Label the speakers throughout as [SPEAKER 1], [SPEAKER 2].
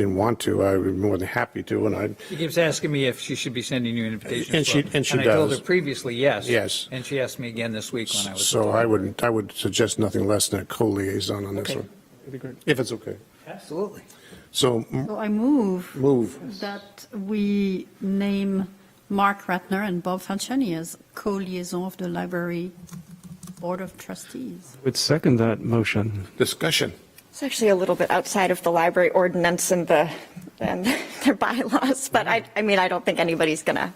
[SPEAKER 1] didn't want to, I would be more than happy to, and I,
[SPEAKER 2] She keeps asking me if she should be sending you invitations.
[SPEAKER 1] And she-
[SPEAKER 2] Well,
[SPEAKER 1] and she
[SPEAKER 2] I told her
[SPEAKER 1] does.
[SPEAKER 2] previously, yes.
[SPEAKER 1] Yes.
[SPEAKER 2] And she asked me again this week when I was.
[SPEAKER 1] so I would, I would suggest nothing less than a co-liaison on this
[SPEAKER 2] Okay.
[SPEAKER 1] one. If it's okay.
[SPEAKER 2] Absolutely.
[SPEAKER 1] So m-
[SPEAKER 3] So I move
[SPEAKER 1] move.
[SPEAKER 3] that we name Mark Ratner and Bob Fanchoni as co-liaison of the library board of trustees.
[SPEAKER 4] Would second that motion.
[SPEAKER 1] Discussion.
[SPEAKER 5] It's actually a little bit outside of the library ordinance and the, and their bylaws, but I, I mean, I don't think anybody's gonna,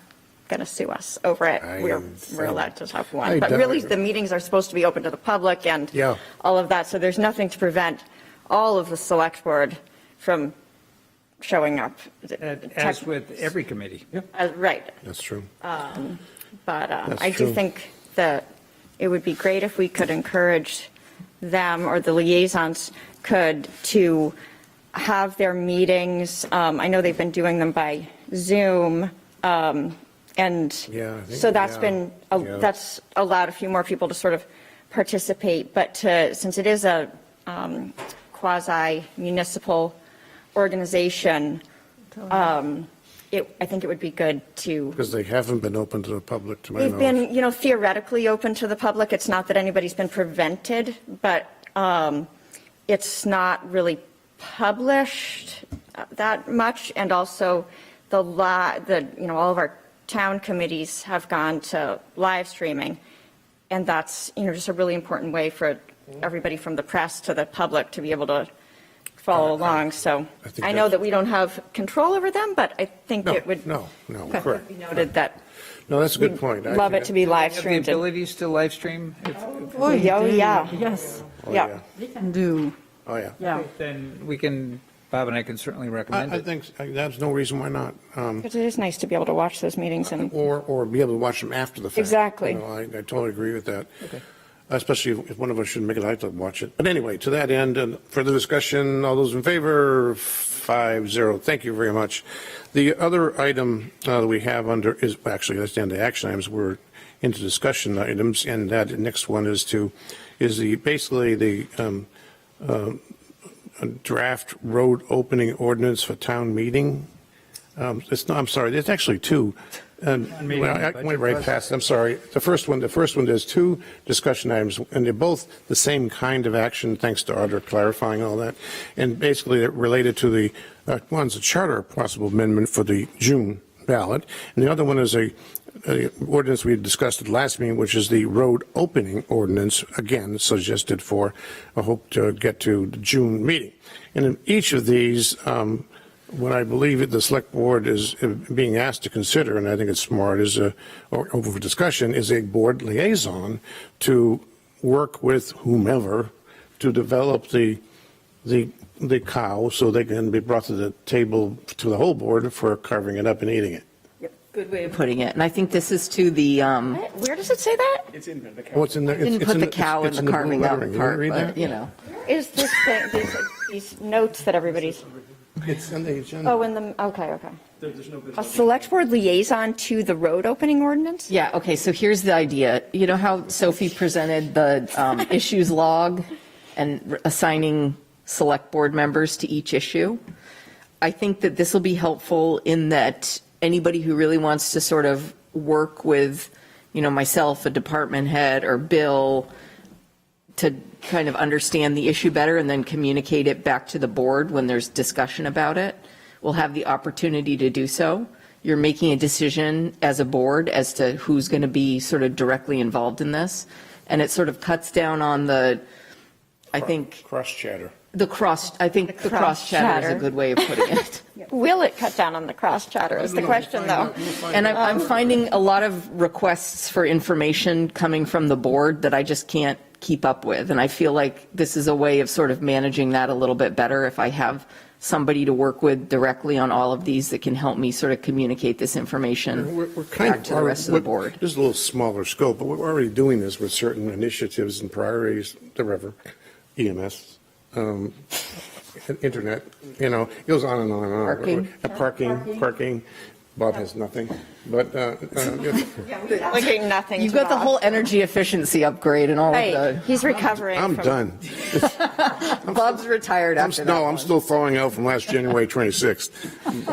[SPEAKER 5] gonna sue us over it.
[SPEAKER 1] I
[SPEAKER 5] We're,
[SPEAKER 1] am-
[SPEAKER 5] we're allowed to talk
[SPEAKER 1] I
[SPEAKER 5] one, but
[SPEAKER 1] doubt
[SPEAKER 5] really,
[SPEAKER 1] it.
[SPEAKER 5] the meetings are supposed to be open to the public and
[SPEAKER 1] Yeah.
[SPEAKER 5] all of that, so there's nothing to prevent all of the select board from showing up.
[SPEAKER 2] As with every committee.
[SPEAKER 5] Uh, Right,
[SPEAKER 1] That's true.
[SPEAKER 5] but uh,
[SPEAKER 1] That's
[SPEAKER 5] I
[SPEAKER 1] true.
[SPEAKER 5] do think that it would be great if we could encourage them, or the liaisons could, to have their meetings, um, I know they've been doing them by Zoom, um, and
[SPEAKER 1] Yeah, I think-
[SPEAKER 5] so that's
[SPEAKER 1] yeah,
[SPEAKER 5] been,
[SPEAKER 1] yeah.
[SPEAKER 5] that's allowed a few more people to sort of participate, but to, since it is a um, quasi-municipal organization, um, it, I think it would be good to
[SPEAKER 1] Because they haven't been open to the public, to my
[SPEAKER 5] They've
[SPEAKER 1] knowledge.
[SPEAKER 5] been, you know, theoretically open to the public. It's not that anybody's been prevented, but um, it's not really published uh, that much. And also the law, the, you know, all of our town committees have gone to live streaming. And that's, you know, just a really important way for everybody from the press to the public to be able to follow along. So
[SPEAKER 1] I think
[SPEAKER 5] I know
[SPEAKER 1] that's-
[SPEAKER 5] that we don't have control over them, but I think
[SPEAKER 1] No,
[SPEAKER 5] it would
[SPEAKER 1] no, no,
[SPEAKER 5] it would
[SPEAKER 1] correct.
[SPEAKER 5] be noted that
[SPEAKER 1] No, that's a
[SPEAKER 5] we
[SPEAKER 1] good point. I
[SPEAKER 5] love
[SPEAKER 1] think-
[SPEAKER 5] it to be live
[SPEAKER 2] Have the
[SPEAKER 5] streamed. and-
[SPEAKER 2] abilities to live stream? If-
[SPEAKER 3] Oh,
[SPEAKER 5] yeah, oh, yeah.
[SPEAKER 3] Yes,
[SPEAKER 1] Oh,
[SPEAKER 5] yeah.
[SPEAKER 3] they can do,
[SPEAKER 1] Oh, yeah.
[SPEAKER 3] yeah.
[SPEAKER 2] Then we can, Bob and I can certainly recommend
[SPEAKER 1] I, I
[SPEAKER 2] it.
[SPEAKER 1] think, I- there's no reason why not. Um,
[SPEAKER 5] Because it is nice to be able to watch those meetings and,
[SPEAKER 1] Or, or be able to watch them after the fact.
[SPEAKER 5] Exactly.
[SPEAKER 1] You know, I, I totally agree with that. Especially if if one of us shouldn't make it, I'd like to watch it. But anyway, to that end, and further discussion, all those in favor, five zero. Thank you very much. The other item uh, that we have under is, actually, that's down to action items. We're into discussion items, and that next one is to, is the, basically the um, um, draft road opening ordinance for town meeting. Um, It's not, I'm sorry, it's actually two. And
[SPEAKER 2] meeting,
[SPEAKER 1] well, I I
[SPEAKER 2] budget
[SPEAKER 1] went right
[SPEAKER 2] process.
[SPEAKER 1] past, I'm sorry. The first one, the first one, there's two discussion items, and they're both the same kind of action, thanks to Audra clarifying all that. And basically, they're related to the, uh, one's a charter possible amendment for the June ballot, and the other one is a a ordinance we had discussed at last meeting, which is the road opening ordinance, again suggested for, I hope to get to the June meeting. And in each of these, um, what I believe that the select board is uh, being asked to consider, and I think it's smart, is a, or open for discussion, is a board liaison to work with whomever to develop the, the, the cow so they can be brought to the table, to the whole board for carving it up and eating it.
[SPEAKER 6] Good way of putting it. And I think this is to the, um,
[SPEAKER 5] What? where does it say that?
[SPEAKER 1] What's in the? it's-
[SPEAKER 6] didn't
[SPEAKER 1] it's
[SPEAKER 6] put
[SPEAKER 1] in
[SPEAKER 6] the cow in
[SPEAKER 1] it's
[SPEAKER 6] the
[SPEAKER 1] blue
[SPEAKER 6] carving out
[SPEAKER 1] lettering. You
[SPEAKER 6] part,
[SPEAKER 1] read
[SPEAKER 6] but,
[SPEAKER 1] that?
[SPEAKER 6] you know.
[SPEAKER 5] Is this thing, these, these notes that everybody's,
[SPEAKER 1] It's in the agenda.
[SPEAKER 5] oh, in the, okay, okay. A select board liaison to the road opening ordinance?
[SPEAKER 6] Yeah, okay, so here's the idea. You know how Sophie presented the um, issues log and assigning select board members to each issue? I think that this will be helpful in that anybody who really wants to sort of work with, you know, myself, a department head, or Bill, to kind of understand the issue better and then communicate it back to the board when there's discussion about it, will have the opportunity to do so. You're making a decision as a board as to who's going to be sort of directly involved in this. And it sort of cuts down on the, I think,
[SPEAKER 1] Cross chatter.
[SPEAKER 6] the cross, I think the cross chatter is a
[SPEAKER 5] cross-chatter.
[SPEAKER 6] good way of putting it.
[SPEAKER 5] Will it cut down on the cross chatter is the question, though.
[SPEAKER 6] And I'm, I'm finding a lot of requests for information coming from the board that I just can't keep up with. And I feel like this is a way of sort of managing that a little bit better if I have somebody to work with directly on all of these that can help me sort of communicate this information.
[SPEAKER 1] We're, we're kind of.
[SPEAKER 6] Back to the rest of the
[SPEAKER 1] we're-
[SPEAKER 6] board.
[SPEAKER 1] This is a little smaller scope, but we're already doing this with certain initiatives and priorities, the river, EMS, um, internet, you know, it goes on and on and on.
[SPEAKER 6] Parking.
[SPEAKER 1] Uh, Parking, parking, Bob has nothing, but, uh, uh, if-
[SPEAKER 5] Looking nothing
[SPEAKER 6] You've
[SPEAKER 5] to
[SPEAKER 6] got the
[SPEAKER 5] Bob.
[SPEAKER 6] whole energy efficiency upgrade and all of
[SPEAKER 5] Right,
[SPEAKER 6] the,
[SPEAKER 5] he's recovering.
[SPEAKER 1] I'm
[SPEAKER 5] from-
[SPEAKER 1] done.
[SPEAKER 6] Bob's retired
[SPEAKER 1] I'm,
[SPEAKER 6] after that
[SPEAKER 1] no,
[SPEAKER 6] one.
[SPEAKER 1] I'm still thawing out from last January 26th.